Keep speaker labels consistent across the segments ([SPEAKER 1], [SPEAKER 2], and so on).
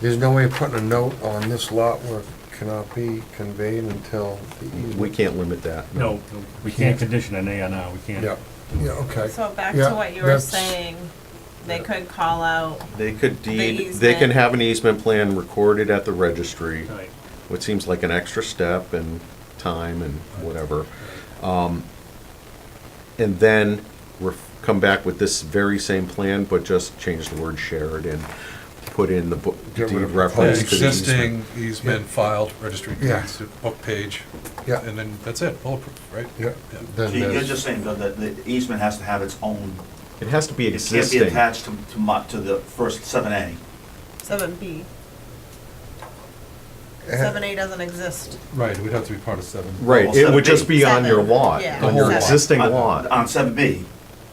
[SPEAKER 1] There's no way of putting a note on this lot where it cannot be conveyed until the easement.
[SPEAKER 2] We can't limit that.
[SPEAKER 3] No, we can't condition an A and R, we can't.
[SPEAKER 1] Yeah, yeah, okay.
[SPEAKER 4] So back
[SPEAKER 1] Yeah,
[SPEAKER 4] to what you were
[SPEAKER 1] that's-
[SPEAKER 4] saying, they
[SPEAKER 1] Yeah.
[SPEAKER 4] could call out,
[SPEAKER 2] They could
[SPEAKER 4] The
[SPEAKER 2] deed, they can
[SPEAKER 4] easement.
[SPEAKER 2] have an easement plan recorded at the registry,
[SPEAKER 3] Right.
[SPEAKER 2] which seems like an extra step and time and whatever. Um, And then ref- come back with this very same plan, but just change the word shared and put in the book,
[SPEAKER 1] Get
[SPEAKER 2] deed
[SPEAKER 1] rid of
[SPEAKER 5] An
[SPEAKER 2] reference to the easement.
[SPEAKER 5] Existing easement filed, registry
[SPEAKER 1] Yeah.
[SPEAKER 5] deeds, book page,
[SPEAKER 1] Yeah,
[SPEAKER 5] and then that's it, bulletproof, right?
[SPEAKER 1] yeah.
[SPEAKER 5] Yeah.
[SPEAKER 1] Then
[SPEAKER 6] So you're
[SPEAKER 1] there's-
[SPEAKER 6] just saying, Bill, that the easement has to have its own,
[SPEAKER 2] It has to be
[SPEAKER 6] it can't be
[SPEAKER 2] existing.
[SPEAKER 6] attached to, to mu, to the first seven A.
[SPEAKER 4] seven B,
[SPEAKER 1] Eh,
[SPEAKER 4] seven A doesn't exist.
[SPEAKER 5] Right, it would have to be part of seven.
[SPEAKER 2] Right, it would just be on your
[SPEAKER 4] Seven,
[SPEAKER 2] lot,
[SPEAKER 4] yeah.
[SPEAKER 2] on your
[SPEAKER 5] Seven.
[SPEAKER 2] existing
[SPEAKER 6] On-
[SPEAKER 2] lot.
[SPEAKER 6] Uh, On seven B,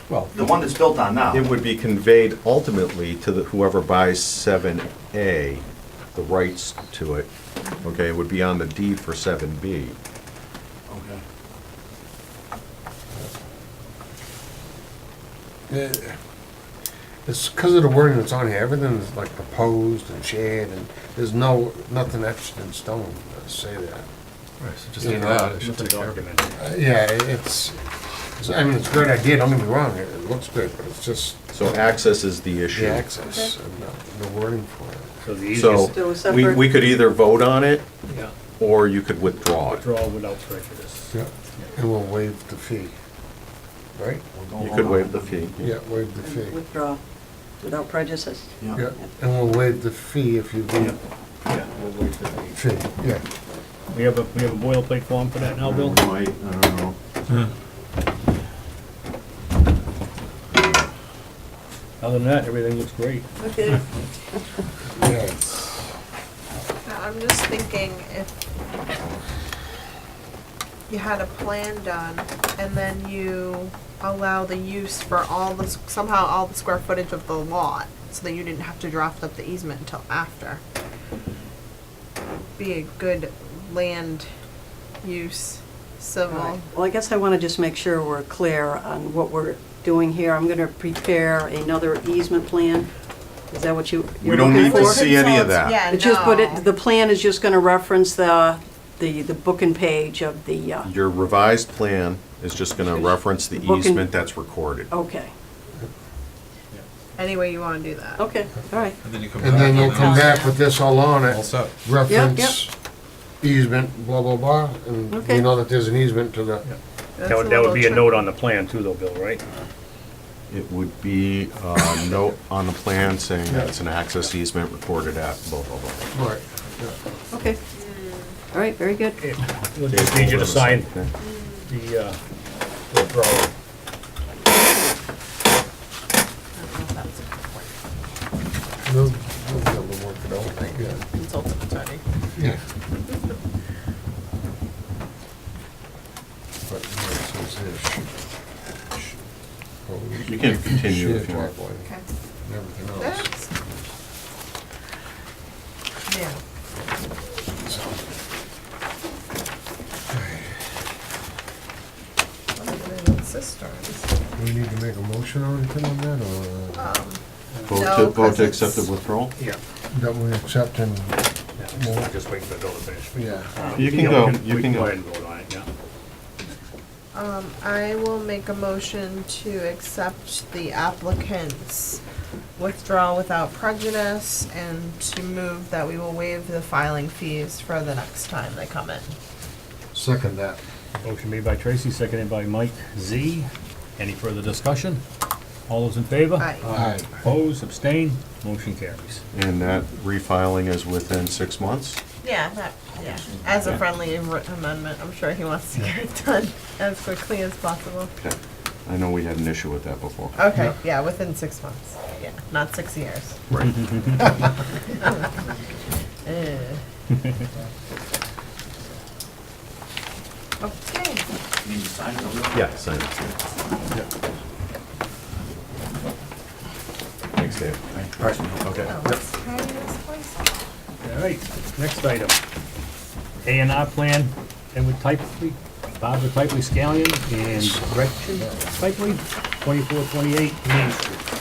[SPEAKER 5] Well,
[SPEAKER 6] the one that's built on now.
[SPEAKER 2] It would be conveyed ultimately to the- whoever buys 7A, the rights to it, okay, it would be on the deed for 7B.
[SPEAKER 6] Okay.
[SPEAKER 1] eh, It's because of the wording that's on here, everything is like proposed and shared, and there's no, nothing etched in stone to say that.
[SPEAKER 5] right, so just
[SPEAKER 1] Yeah.
[SPEAKER 5] do that, it should
[SPEAKER 3] It's a
[SPEAKER 5] take care of it.
[SPEAKER 3] document.
[SPEAKER 1] Uh, Yeah, i- it's, it's- I mean, it's a great idea, don't get me wrong, it it looks good, but it's just
[SPEAKER 2] So access is the
[SPEAKER 1] the
[SPEAKER 2] issue.
[SPEAKER 1] access and the- the wording for it.
[SPEAKER 3] So the
[SPEAKER 2] So
[SPEAKER 3] easiest,
[SPEAKER 7] Do a
[SPEAKER 2] we,
[SPEAKER 7] separate-
[SPEAKER 2] we could either vote on it,
[SPEAKER 3] yeah,
[SPEAKER 2] or you could withdraw it.
[SPEAKER 3] withdraw without prejudice.
[SPEAKER 1] Yeah, and we'll waive the fee, right?
[SPEAKER 6] We'll
[SPEAKER 2] You
[SPEAKER 6] go along
[SPEAKER 2] could waive
[SPEAKER 6] with
[SPEAKER 2] the
[SPEAKER 6] it.
[SPEAKER 2] fee.
[SPEAKER 1] Yeah, waive the
[SPEAKER 7] and
[SPEAKER 1] fee.
[SPEAKER 7] Withdraw without prejudice.
[SPEAKER 1] Yeah,
[SPEAKER 6] Yeah.
[SPEAKER 1] and we'll waive the fee if you
[SPEAKER 3] Yeah,
[SPEAKER 1] do,
[SPEAKER 3] yeah, we'll waive the fee.
[SPEAKER 1] fee, yeah.
[SPEAKER 3] We have a, we have a boilerplate form for that now, Bill?
[SPEAKER 5] Mm-hmm.
[SPEAKER 6] Might, I don't know.
[SPEAKER 3] Other than that, everything looks great.
[SPEAKER 8] Uh,
[SPEAKER 7] Okay.
[SPEAKER 1] Yeah, it's-
[SPEAKER 8] I'm just thinking if you had a plan done and then you allow the use for all the, somehow all the square footage of the lot, so that you didn't have to draft up the easement until after. Be a good land use, civil.
[SPEAKER 7] Well, I guess I want to just make sure we're clear on what we're doing here. I'm going to prepare another easement plan. Is that what you,
[SPEAKER 2] We
[SPEAKER 7] you're
[SPEAKER 2] don't
[SPEAKER 7] looking
[SPEAKER 2] need to
[SPEAKER 7] for?
[SPEAKER 2] see any of that.
[SPEAKER 8] Yeah, no.
[SPEAKER 7] It just put it, the plan is just going to reference the, the, the book and page of the, uh,
[SPEAKER 2] Your revised plan is just gonna reference the
[SPEAKER 7] Book and-
[SPEAKER 2] easement that's recorded.
[SPEAKER 7] okay,
[SPEAKER 8] Any way you wanna do that.
[SPEAKER 7] okay, all right.
[SPEAKER 5] And then you come back.
[SPEAKER 1] And then you'll come
[SPEAKER 5] it's
[SPEAKER 1] back with this all on
[SPEAKER 5] All
[SPEAKER 1] it,
[SPEAKER 5] set.
[SPEAKER 1] reference easement, blah, blah, blah, and we
[SPEAKER 7] Okay.
[SPEAKER 1] know that there's an easement to the,
[SPEAKER 8] That's
[SPEAKER 3] That would, that would be a
[SPEAKER 8] little
[SPEAKER 3] note
[SPEAKER 8] tricky.
[SPEAKER 3] on the plan too, though, Bill, right?
[SPEAKER 2] It would be a note on the plan saying that it's an access easement recorded at blah, blah, blah.
[SPEAKER 1] right.
[SPEAKER 7] Okay.
[SPEAKER 8] Mm.
[SPEAKER 7] All right, very good.
[SPEAKER 3] It- We'll just need you to sign
[SPEAKER 2] Okay.
[SPEAKER 3] the, uh, withdrawal.
[SPEAKER 1] yeah. We'll- we'll be able to work it out, yeah.
[SPEAKER 4] Consultant attorney.
[SPEAKER 1] Yeah. But, no, it says here, should- should- proposed
[SPEAKER 2] You can continue
[SPEAKER 1] shared
[SPEAKER 2] if you want.
[SPEAKER 1] driveway
[SPEAKER 8] Okay.
[SPEAKER 1] and everything else.
[SPEAKER 8] That's- Yeah. What are they doing with cisterns?
[SPEAKER 1] Do we need to make a motion or anything on that,
[SPEAKER 8] Uh,
[SPEAKER 1] or
[SPEAKER 2] Vote to,
[SPEAKER 8] No,
[SPEAKER 2] vote
[SPEAKER 8] 'cause
[SPEAKER 2] to
[SPEAKER 8] it's-
[SPEAKER 2] accept the withdrawal?
[SPEAKER 3] Yeah.
[SPEAKER 1] that we accept and,
[SPEAKER 3] yeah, Just waiting for the bill to finish.
[SPEAKER 1] yeah.
[SPEAKER 2] You can
[SPEAKER 3] Um, Yeah, we
[SPEAKER 2] go,
[SPEAKER 3] we
[SPEAKER 2] you can
[SPEAKER 3] Go
[SPEAKER 2] go.
[SPEAKER 3] ahead and vote on it, yeah.
[SPEAKER 8] Um, I will make a motion to accept the applicant's withdrawal without prejudice and to move that we will waive the filing fees for the next time they come in.
[SPEAKER 1] Second that.
[SPEAKER 3] Motion made by Tracy, seconded by Mike Z. Any further discussion? All those in favor?
[SPEAKER 8] Aye.
[SPEAKER 1] Aye.
[SPEAKER 3] Opposed, abstain, motion carries.
[SPEAKER 2] And that refiling is within six months?
[SPEAKER 8] Yeah, that, yeah, as a friendly am- amendment, I'm sure he wants to get it done as quickly as possible.
[SPEAKER 2] Okay. I know we had an issue with that before.
[SPEAKER 8] Okay, yeah, within six months, yeah, not six years.
[SPEAKER 2] Right.
[SPEAKER 8] Eh. Okay,
[SPEAKER 6] You need to sign it, okay?
[SPEAKER 2] Yeah, sign it. Thanks, Dave. Okay.
[SPEAKER 8] now let's try this place out.
[SPEAKER 3] All right, next item. A and R plan, Edward Typley, Barbara Typley Scallion, and Gretchen Typley, 2428 Main Street.